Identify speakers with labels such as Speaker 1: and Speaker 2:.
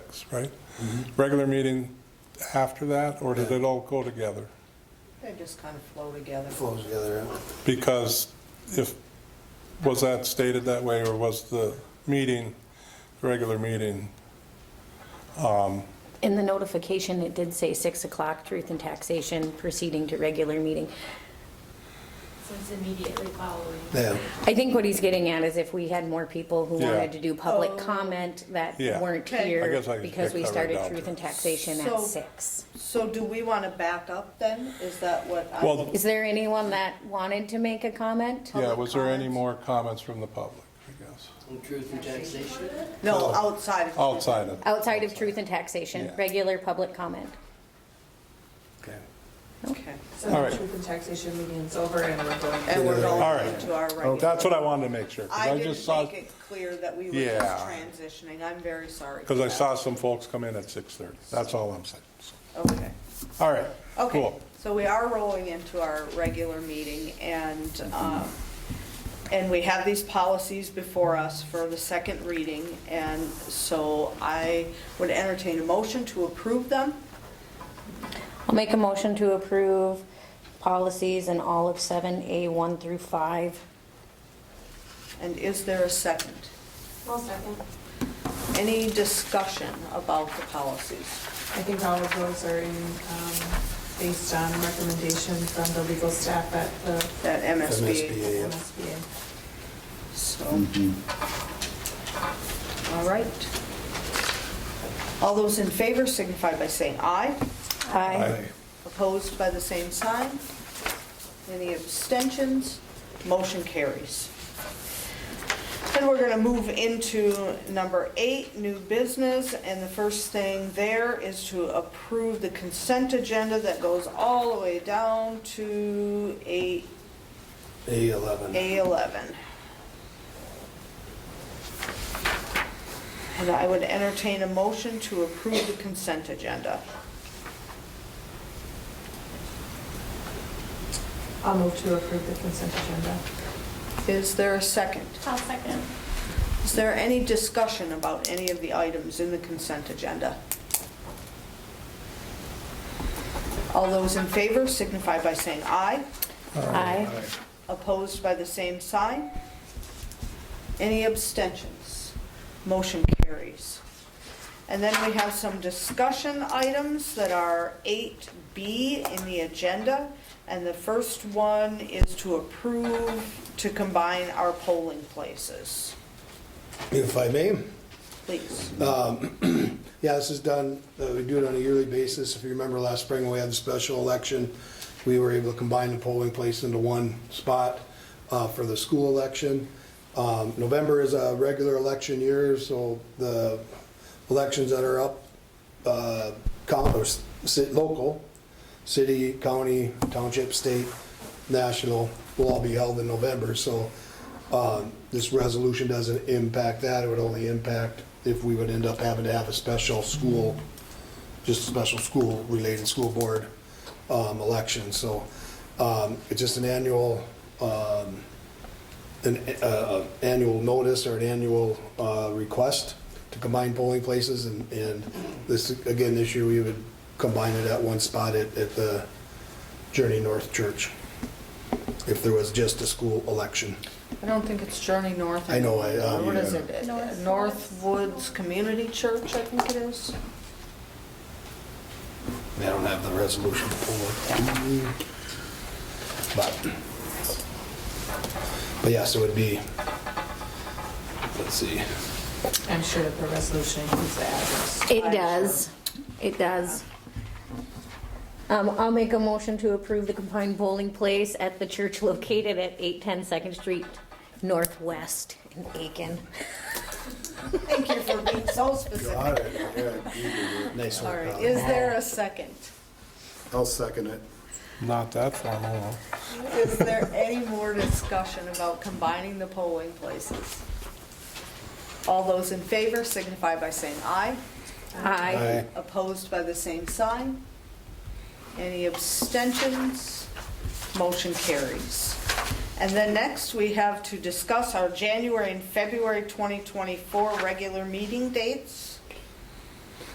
Speaker 1: minutes, right? Regular meeting after that, or did it all go together?
Speaker 2: They just kind of flow together.
Speaker 3: flows together.
Speaker 1: Because if, was that stated that way, or was the meeting, the regular meeting?
Speaker 4: In the notification, it did say 6 o'clock, truth and taxation, proceeding to regular meeting.
Speaker 5: So it's immediately following.
Speaker 3: Yeah,
Speaker 4: I think what he's getting at is if we had more people who
Speaker 1: Yeah.
Speaker 4: wanted to do public
Speaker 2: Oh.
Speaker 4: comment that
Speaker 1: Yeah.
Speaker 4: weren't
Speaker 2: Okay. I
Speaker 4: here,
Speaker 1: guess I can
Speaker 4: because
Speaker 1: take
Speaker 4: we
Speaker 1: that right
Speaker 4: started
Speaker 1: down
Speaker 4: truth
Speaker 1: to
Speaker 4: and
Speaker 1: it.
Speaker 4: taxation at
Speaker 2: So-
Speaker 4: 6.
Speaker 2: So do we want to back up then? Is that what I?
Speaker 1: Well,
Speaker 4: Is there anyone that wanted to make a comment?
Speaker 1: yeah, was there any
Speaker 2: comments?
Speaker 1: more comments from the public, I guess?
Speaker 6: Truth and taxation.
Speaker 2: No, outside of.
Speaker 1: Outside of,
Speaker 4: Outside of truth and taxation,
Speaker 1: Yeah.
Speaker 4: regular public comment.
Speaker 3: okay.
Speaker 2: Okay.
Speaker 7: So
Speaker 1: All right.
Speaker 7: the truth and taxation meeting's over and we're going.
Speaker 2: And we're
Speaker 1: All
Speaker 2: going
Speaker 1: right. Oh,
Speaker 2: into our regular.
Speaker 1: that's what I wanted to make sure, because
Speaker 2: I
Speaker 1: I
Speaker 2: didn't
Speaker 1: just saw,
Speaker 2: make it clear that we were
Speaker 1: Yeah.
Speaker 2: just transitioning. I'm very sorry. for
Speaker 1: because I
Speaker 2: that.
Speaker 1: saw some folks come in at 6:30. That's all I'm saying. so.
Speaker 2: Okay.
Speaker 1: All right,
Speaker 2: Okay,
Speaker 1: cool.
Speaker 2: so we are rolling into our regular meeting and, um, and we have these policies before us for the second reading. And so I would entertain a motion to approve them.
Speaker 4: I'll make a motion to approve policies in all of 7A1 through 5.
Speaker 2: And is there a second?
Speaker 5: I'll second.
Speaker 2: Any discussion about the policies?
Speaker 7: I think all of those are in, um, based on recommendation from the legal staff at the
Speaker 2: That MSB.
Speaker 3: MSBA. Yeah.
Speaker 7: MSBA.
Speaker 2: So. All right. All those in favor signify by saying aye.
Speaker 4: Aye.
Speaker 1: Aye.
Speaker 2: Opposed by the same sign? Any abstentions? Motion carries. And we're going to move into number eight, new business, and the first thing there is to approve the consent agenda that goes all the way down to eight
Speaker 3: A11.
Speaker 2: A11. And I would entertain a motion to approve the consent agenda.
Speaker 7: I'll move to approve the consent agenda.
Speaker 2: Is there a second?
Speaker 5: I'll second.
Speaker 2: Is there any discussion about any of the items in the consent agenda? All those in favor signify by saying aye.
Speaker 4: Aye.
Speaker 2: Opposed by the same sign? Any abstentions? Motion carries. And then we have some discussion items that are 8B in the agenda. And the first one is to approve to combine our polling places.
Speaker 3: If I may.
Speaker 2: Please.
Speaker 3: Uh, Yeah, this is done, uh, we do it on a yearly basis. If you remember last spring, when we had the special election, we were able to combine the polling place into one spot uh, for the school election. Um, November is a regular election year, so the elections that are up, uh, count, or s- sit- local, city, county, township, state, national, will all be held in November, so um, this resolution doesn't impact that, it would only impact if we would end up having to have a special school, just a special school-related school board um, election, so um, it's just an annual, um, an uh, annual notice or an annual uh, request to combine polling places, and and this, again, this year, we would combine it at one spot at at the Journey North Church, if there was just a school election.
Speaker 2: I don't think it's Journey North.
Speaker 3: I know, I, um,
Speaker 2: What is it?
Speaker 5: North-
Speaker 2: North Woods Community Church, I think it is.
Speaker 3: I don't have the resolution for it. But, but yes, it would be, let's see,
Speaker 7: I'm sure that the resolution includes the
Speaker 4: It
Speaker 7: address.
Speaker 4: does. It does. Um, I'll make a motion to approve the combined bowling place at the church located at 810 Second Street Northwest in Aiken.
Speaker 2: Thank you for being so specific. All
Speaker 3: nice one.
Speaker 2: right, is there a second?
Speaker 3: I'll second it.
Speaker 1: Not that formal, huh?
Speaker 2: Is there any more discussion about combining the polling places? All those in favor signify by saying aye.
Speaker 4: Aye.
Speaker 3: Aye.
Speaker 2: Opposed by the same sign? Any abstentions? Motion carries. And then next, we have to discuss our January and February 2024 regular meeting dates.